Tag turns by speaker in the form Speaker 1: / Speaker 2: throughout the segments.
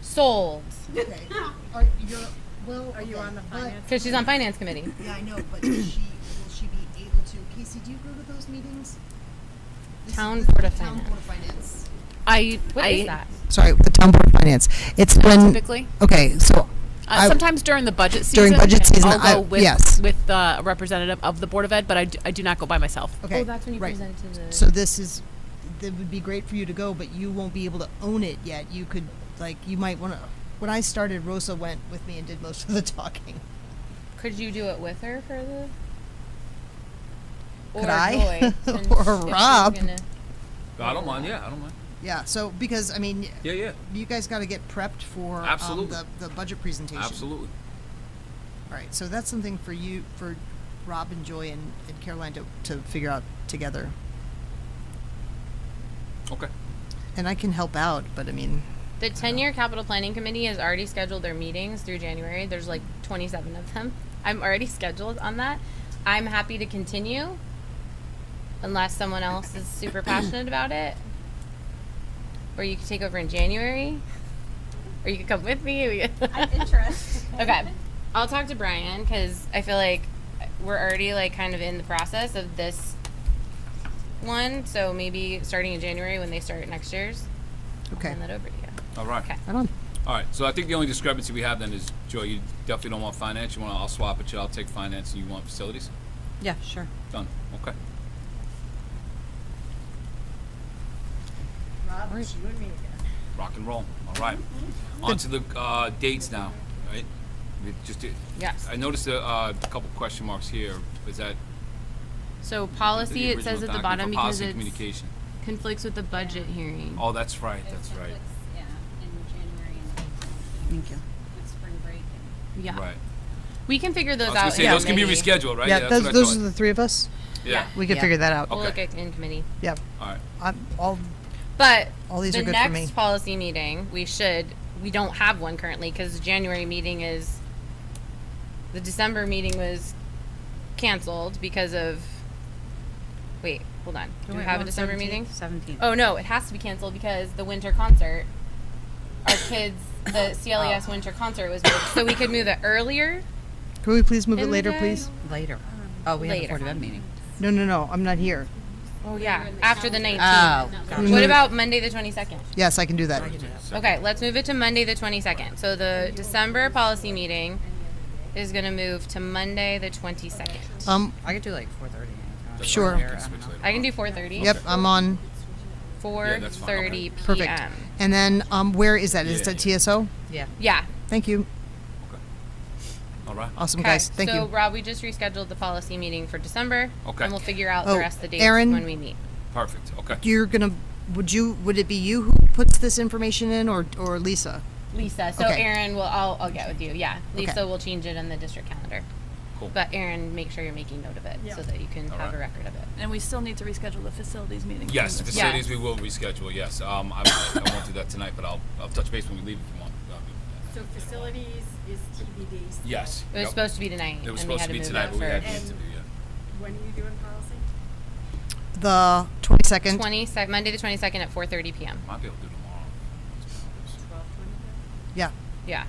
Speaker 1: sold
Speaker 2: Okay. Are you well?
Speaker 3: Are you
Speaker 2: okay,
Speaker 3: on the
Speaker 2: but-
Speaker 3: finance?
Speaker 1: because she's on finance committee.
Speaker 2: Yeah, I know, but does she will she be able to? Casey, do you go to those meetings? This-
Speaker 1: Town
Speaker 2: this-
Speaker 1: Board of
Speaker 2: Town
Speaker 1: Finance.
Speaker 2: Board of Finance.
Speaker 4: I
Speaker 1: What
Speaker 4: I,
Speaker 1: is that?
Speaker 2: Sorry, the Town Board of Finance. It's when
Speaker 4: typically.
Speaker 2: okay, so
Speaker 1: Oh,
Speaker 4: Uh, sometimes during the budget season.
Speaker 2: During budget season,
Speaker 4: I'll go
Speaker 2: I-
Speaker 4: with,
Speaker 2: yes.
Speaker 4: with uh, a representative of the Board of Ed, but I d- I do not go by myself.
Speaker 2: okay,
Speaker 1: oh, that's when you
Speaker 2: right.
Speaker 1: presented to the.
Speaker 2: So this is it would be great for you to go, but you won't be able to own it yet. You could like you might want to. When I started, Rosa went with me and did most of the talking.
Speaker 1: could you do it with her for the?
Speaker 2: Could
Speaker 1: or
Speaker 2: I?
Speaker 1: Joy, since
Speaker 2: Or
Speaker 1: if she's
Speaker 2: Rob?
Speaker 1: gonna-
Speaker 5: I don't mind. Yeah, I don't mind.
Speaker 2: Yeah. So because I mean,
Speaker 5: Yeah, yeah,
Speaker 2: you guys got to get prepped for
Speaker 5: Absolutely.
Speaker 2: Um, the the budget presentation.
Speaker 5: absolutely.
Speaker 2: All right, so that's something for you, for Rob and Joy and, and Caroline to, to figure out together.
Speaker 5: Okay.
Speaker 2: And I can help out, but I mean,
Speaker 1: The ten-year capital planning committee has already scheduled their meetings through January. There's like twenty-seven of them. I'm already scheduled on that. I'm happy to continue, unless someone else is super passionate about it, or you could take over in January, or you could come with me. We could-
Speaker 3: I'm interested.
Speaker 1: Okay. I'll talk to Brian because I feel like we're already like kind of in the process of this one. So maybe starting in January when they start next year's,
Speaker 2: okay.
Speaker 1: hand that over to you.
Speaker 5: All right.
Speaker 1: Okay.
Speaker 2: Right on.
Speaker 5: All right. So I think the only discrepancy we have then is, Joy, you definitely don't want finance. You want I'll swap it. You, I'll take finance, and you want facilities.
Speaker 4: Yeah, sure.
Speaker 5: Done. Okay.
Speaker 3: Rob, it's you and me again.
Speaker 5: Rock and roll. All right. On to the uh, dates now. Right. We just did-
Speaker 1: Yes.
Speaker 5: I noticed a uh, couple question marks here. Is that
Speaker 1: So
Speaker 5: the
Speaker 1: policy it
Speaker 5: original
Speaker 1: says at the
Speaker 5: document
Speaker 1: bottom
Speaker 5: for
Speaker 1: because
Speaker 5: policy
Speaker 1: it
Speaker 5: communication?
Speaker 1: conflicts with the budget hearing.
Speaker 5: Oh, that's right.
Speaker 6: It
Speaker 5: That's right.
Speaker 6: conflicts, Yeah, in January and April
Speaker 2: Thank you.
Speaker 6: with spring break and
Speaker 1: yeah.
Speaker 5: Right.
Speaker 1: We can figure
Speaker 5: I
Speaker 1: those
Speaker 5: was
Speaker 1: out.
Speaker 5: gonna say
Speaker 1: in
Speaker 5: those can be
Speaker 1: committee.
Speaker 5: rescheduled, right?
Speaker 2: Yeah,
Speaker 5: Oh, that's
Speaker 2: those,
Speaker 5: what I
Speaker 2: those
Speaker 5: thought. Oh.
Speaker 2: are the three of us.
Speaker 5: yeah.
Speaker 2: We can
Speaker 1: Yeah.
Speaker 2: figure that out.
Speaker 1: We'll
Speaker 5: Okay.
Speaker 1: look at in committee.
Speaker 2: Yeah,
Speaker 5: All right.
Speaker 2: I'm, all,
Speaker 1: But
Speaker 2: all these
Speaker 1: the
Speaker 2: are good
Speaker 1: next
Speaker 2: for me.
Speaker 1: policy meeting, we should. We don't have one currently because the January meeting is. The December meeting was canceled because of. Wait, hold on. Do we have a December meeting?
Speaker 3: Seventeenth.
Speaker 1: Oh no, it has to be canceled because the winter concert. Our kids, the CLES
Speaker 7: Oh.
Speaker 1: winter concert was moved, so we could move it earlier.
Speaker 2: Can we please move it
Speaker 1: And
Speaker 2: later,
Speaker 1: then-
Speaker 2: please?
Speaker 7: Later. Oh, we have a
Speaker 1: Later.
Speaker 7: Board of Ed meeting.
Speaker 2: No, no, no, I'm not here.
Speaker 1: Oh yeah, after the
Speaker 7: Oh,
Speaker 1: nineteenth.
Speaker 2: Can we
Speaker 1: What
Speaker 2: move-
Speaker 1: about Monday the twenty second?
Speaker 2: Yes, I can do that.
Speaker 1: Okay, let's move it to Monday the 22nd. So the December policy meeting is going to move to Monday the 22nd.
Speaker 2: Um,
Speaker 7: I could do like 4:30. anytime.
Speaker 2: Sure.
Speaker 7: Or, I
Speaker 5: Can
Speaker 7: don't
Speaker 5: switch
Speaker 7: know.
Speaker 5: later
Speaker 1: I can
Speaker 5: on.
Speaker 1: do 4:30.
Speaker 2: yep, I'm on,
Speaker 1: 4:30 p.m.
Speaker 2: perfect. And then, um, where is that? Is
Speaker 5: Yeah,
Speaker 2: that
Speaker 5: yeah.
Speaker 2: TSO?
Speaker 7: Yeah.
Speaker 1: Yeah.
Speaker 2: Thank you.
Speaker 5: All right.
Speaker 2: Awesome,
Speaker 1: Okay.
Speaker 2: guys. Thank
Speaker 1: so
Speaker 2: you.
Speaker 1: Rob, we just rescheduled the policy meeting for December.
Speaker 5: Okay.
Speaker 1: And we'll figure out
Speaker 2: Oh,
Speaker 1: the rest of the dates
Speaker 2: Erin?
Speaker 1: when we meet.
Speaker 5: Perfect. Okay.
Speaker 2: You're gonna, would you, would it be you who puts this information in or, or Lisa?
Speaker 1: Lisa. So
Speaker 2: Okay.
Speaker 1: Erin will I'll, I'll get with you. Yeah. Lisa
Speaker 2: Okay.
Speaker 1: will change it on the district calendar.
Speaker 5: Cool.
Speaker 1: But Erin, make sure you're making note of it so that you can
Speaker 5: All
Speaker 1: have a
Speaker 5: right.
Speaker 1: record of it.
Speaker 8: And we still need to reschedule the facilities meeting.
Speaker 5: Yes,
Speaker 8: Yes.
Speaker 5: facilities we will reschedule. Yes, um, I, I won't do that tonight, but I'll, I'll touch base when we leave if you want. I'll be-
Speaker 9: So facilities is TBD. still.
Speaker 5: Yes.
Speaker 1: It was
Speaker 5: Yep.
Speaker 1: supposed to be tonight.
Speaker 5: It
Speaker 1: and we
Speaker 5: was supposed
Speaker 1: had
Speaker 5: to be
Speaker 1: move it
Speaker 5: tonight, but we
Speaker 1: for
Speaker 5: had the
Speaker 9: And-
Speaker 5: interview. Yeah.
Speaker 9: When are you doing policy?
Speaker 2: The twenty-second?
Speaker 1: 20 sec- Monday the 22nd at 4:30 p.m.
Speaker 5: Might be able to do tomorrow.
Speaker 9: Twelve twenty?
Speaker 2: Yeah.
Speaker 1: Yeah.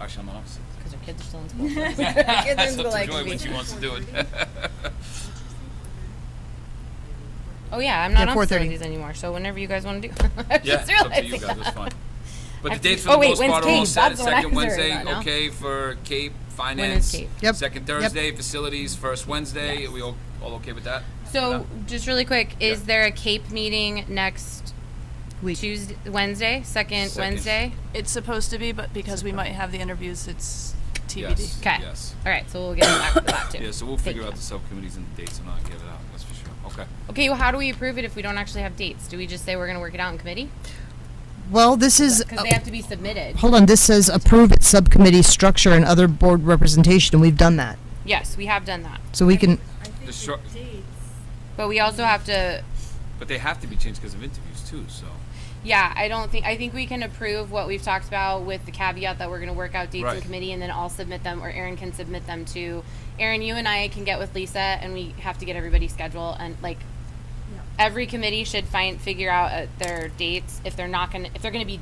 Speaker 5: Actually, I'm not upset.
Speaker 1: Because our kids are still in school.
Speaker 5: That's up
Speaker 1: will
Speaker 5: to
Speaker 1: like
Speaker 5: Joy
Speaker 1: me.
Speaker 5: when she wants to do it.
Speaker 1: oh yeah, I'm not
Speaker 2: Yeah,
Speaker 1: on
Speaker 2: 4:30.
Speaker 1: facilities anymore. So whenever you guys want to do, I was
Speaker 5: yeah,
Speaker 1: just
Speaker 5: it's up to you
Speaker 1: realizing
Speaker 5: guys. It's
Speaker 1: that.
Speaker 5: fine.
Speaker 1: I
Speaker 5: But the
Speaker 1: have to-
Speaker 5: dates for
Speaker 1: oh,
Speaker 5: the
Speaker 1: wait,
Speaker 5: most
Speaker 1: when's
Speaker 5: part are all
Speaker 1: Cape?
Speaker 5: set.
Speaker 1: That's what I
Speaker 5: Second
Speaker 1: was worried
Speaker 5: Wednesday,
Speaker 1: about now.
Speaker 5: okay for Cape Finance.
Speaker 1: Cape?
Speaker 2: Yep.
Speaker 5: Second
Speaker 2: Yep.
Speaker 5: Thursday, facilities. First Wednesday, are we all, all okay with that?
Speaker 1: So just really quick, is there a Cape meeting next
Speaker 2: Week.
Speaker 1: Tuesday, Wednesday, second,
Speaker 5: Second.
Speaker 1: Wednesday?
Speaker 8: It's supposed to be, but because we might have the interviews, it's TBD.
Speaker 5: Yes.
Speaker 1: 'Kay.
Speaker 5: Yes.
Speaker 1: All right, so we'll get back to that too.
Speaker 5: Yeah, so we'll
Speaker 1: Thank
Speaker 5: figure out
Speaker 1: you.
Speaker 5: the subcommittees and the dates and I'll get it out, that's for sure. Okay.
Speaker 1: Okay, well, how do we approve it if we don't actually have dates? Do we just say we're going to work it out in committee?
Speaker 2: Well, this is,
Speaker 1: Because they have to be submitted.
Speaker 2: hold on, this says approve its subcommittee structure and other board representation, and we've done that.
Speaker 1: Yes, we have done that,
Speaker 2: So we can,
Speaker 9: I think
Speaker 5: The short-
Speaker 9: the dates,
Speaker 1: but we also have to.
Speaker 5: But they have to be changed because of interviews too, so.
Speaker 1: Yeah, I don't think I think we can approve what we've talked about with the caveat that we're going to work out dates in
Speaker 5: Right.
Speaker 1: committee, and then I'll submit them, or Aaron can submit them to. Aaron, you and I can get with Lisa, and we have to get everybody's schedule and like. Every committee should find figure out uh, their dates if they're not going to if they're going to be